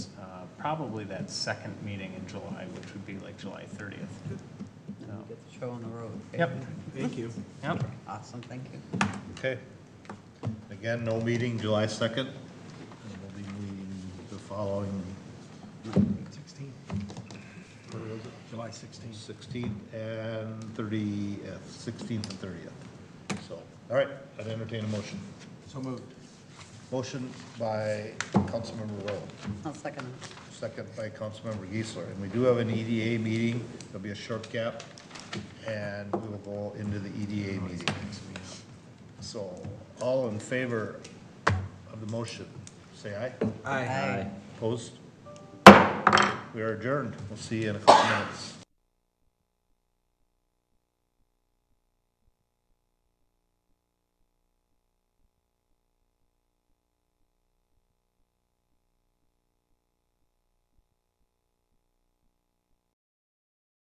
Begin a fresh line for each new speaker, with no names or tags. uh, probably that second meeting in July, which would be like July 30th. So,
Get the show on the road. okay?
Yep,
Thank you.
yep.
Awesome, thank you.
Okay. Again, no meeting July 2nd. And We'll be meeting the following
Sixteen. Or was it July sixteen?
16th and 30th, 16th and 30th. So, all right, I'd entertain a motion.
So moved.
Motion by Councilmember Rowe,
I'll second
second by Councilmember Geisler. And we do have an EDA meeting. There'll be a short gap, and we will go into the EDA meeting. So, all in favor of the motion, say aye.
it. Aye.
Opposed? We are adjourned. We'll see you in a couple minutes.